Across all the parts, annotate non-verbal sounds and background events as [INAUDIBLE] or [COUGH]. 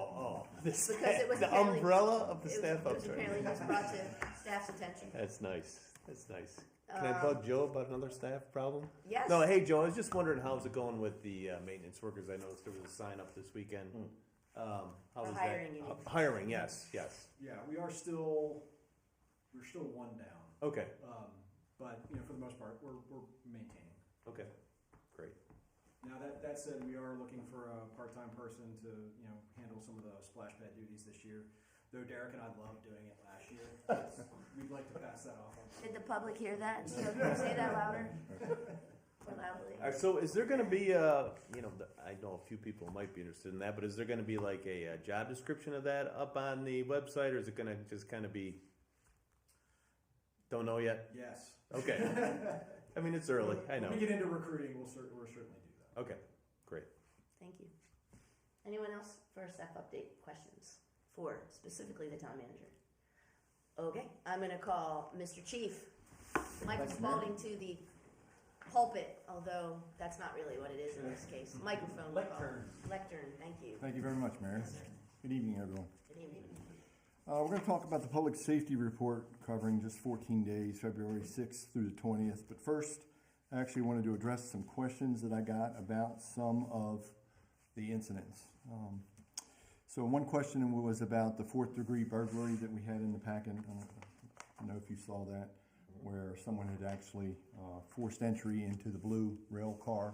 the Because it staff, was Oh, the apparently- umbrella of the it was- staff It was apparently upturn. just brought to staff's attention. Uh, That's nice, that's nice. Can I bug Joe about another staff problem? No, Yes. hey, Joe, I was just wondering how's it going with the uh, maintenance workers? I noticed there was a sign up this weekend. Um, how For was that? hiring, you mean? Uh, Hiring, yes, yes. Yeah, we are still, we're still one down, Okay, um, but, you know, for the most part, we're, we're maintaining. okay, great. Now, that, that said, we are looking for a part-time person to, you know, handle some of the splash pad duties this year. Though Derek and I loved doing it last year, It's- we'd like to pass that off. on- Did the public hear that? So can you say that louder? Or loudly? All right, so is there going to be, uh, you know, the- I know a few people might be interested in that, but is there going to be like a, uh job description of that up on the website, or is it going to just kind of be? Don't know yet. Yes. Okay. I mean, it's early. I When we know. get into recruiting, we'll cer, we'll certainly do that. Okay, great. Thank you. Anyone else for a staff update questions for specifically the town manager? Okay, I'm gonna call Mr. Chief, Michael Spalding to the pulpit, although that's not really what it is in this case. Microphone. we'll call it. Lectern, thank you. Thank you very much, Mayor. Good evening, everyone. Good evening. Uh, we're going to talk about the public safety report covering just 14 days, February 6th through the 20th. But first, I actually wanted to address some questions that I got about some of the incidents. Um, so one question was about the fourth degree burglary that we had in the packet. I don't I don't know if you saw that, where someone had actually uh, forced entry into the blue rail car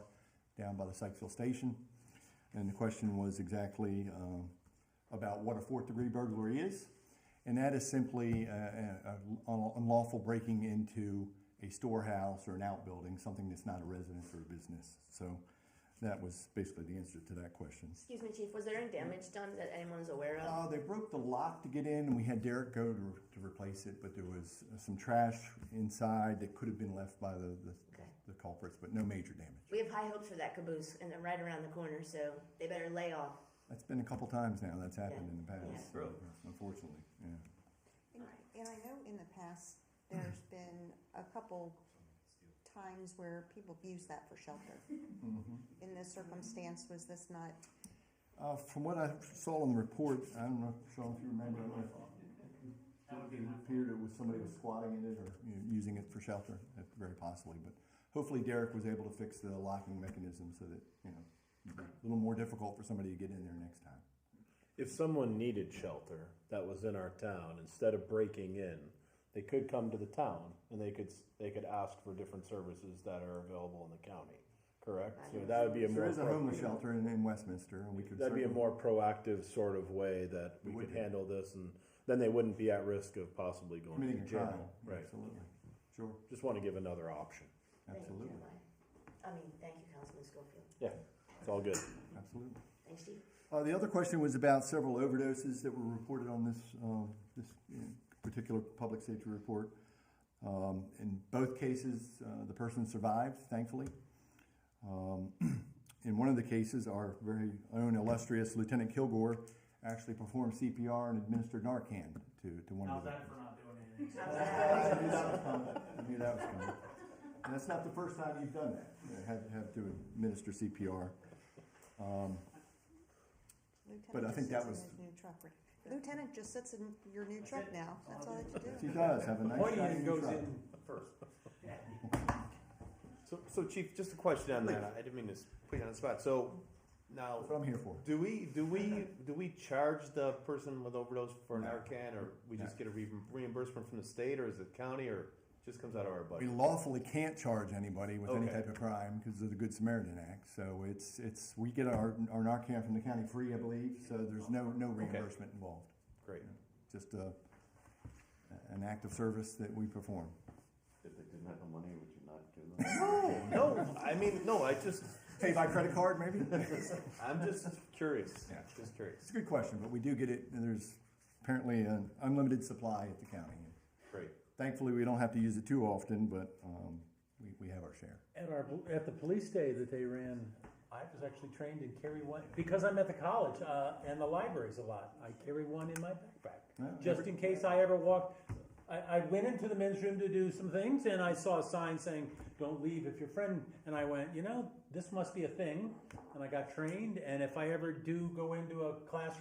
down by the Sykesville station. And the question was exactly um, about what a fourth degree burglary is. And that is simply uh, a- a- a unlawful breaking into a storehouse or an outbuilding, something that's not a residence or a business. So that was basically the answer to that question. Excuse me, Chief, was there any damage done that anyone's aware of? Uh, they broke the lock to get in, and we had Derek go to, to replace it, but there was uh, some trash inside that could have been left by the, the, Okay. the culprits, but no major damage. We have high hopes for that caboose, and they're right around the corner, so they better lay off. That's been a couple times now that's happened in the Yeah. past, Yeah. Really? unfortunately. Yeah. And Right. and I know in the past, there's Mm-hmm. been a couple times where people have used that for shelter. In this circumstance, was this not, Mm-hmm. Uh, from what I saw in the report, I don't know, Sean, if you remember, I don't know if it appeared it was somebody was squatting in it or you know, using it for shelter, if- very possibly. But hopefully Derek was able to fix the locking mechanism so that, you know, it'd be a little more difficult for somebody to get in there next time. If someone needed shelter that was in our town, instead of breaking in, they could come to the town and they could they could ask for different services that are available in the county. Correct. So that would be a So more There is a homeless appropriate- shelter in, in Westminster, and we could That'd be a certainly- more proactive sort of way that we It would could be. handle this, and then they wouldn't be at risk of possibly going committing to a crime. jail. Right. Absolutely. Sure, Just want to give another option. absolutely, Thank you, Jeremiah. I mean, thank you, Councilman Schofield. Yeah, it's all good. absolutely. Thanks, Chief. Uh, the other question was about several overdoses that were reported on this, um, this you know, particular public safety report. Um, in both cases, uh, the person survived, thankfully. Um, [CLEARS THROAT] in one of the cases, our very own illustrious Lieutenant Kilgore actually performed CPR and administered Narcan to, to one How's of the. that for not doing anything? I knew that was coming. I knew that was coming. And that's not the first time you've done that. You know, Have, have to administer CPR. Um, But I Lieutenant think that just sits in was- his new truck? right? Lieutenant just sits in your new truck now, that's all that you She do. does have a nice. shiny new truck. first. So, so Chief, just a question on that. I didn't mean to s- put you on the spot. So That's what now, I'm here for. do we, do we, do we charge the person with overdose for Narcan, or we just No. get a re- reimbursement from the state, or is it county, or just comes out of our We budget? lawfully can't charge anybody with any Okay. type of crime because of the Good Samaritan Act. So it's, it's, we get our, our Narcan from the county free, I believe, so there's no, no reimbursement involved. Great. Just a, an act of service that we perform. If they didn't have the money, would you not do them? No, I mean, no, I just, Pay by credit card, maybe? [LAUGHS] It's I'm just curious. Yeah. Just curious. a good question, but we do get it, and there's apparently an unlimited supply at the county. Great. Thankfully, we don't have to use it too often, but, um, we, we have our share. At our at the police day that they ran, I was actually trained in carry one because I'm at the college uh, and the libraries a lot. I carry one in my backpack Yeah. just in case I ever walked. I, I went into the men's room to do some things and I saw a sign saying "Don't leave if your friend." And I went, you know, this must be a thing. And I got trained. And if I ever do go into a classroom.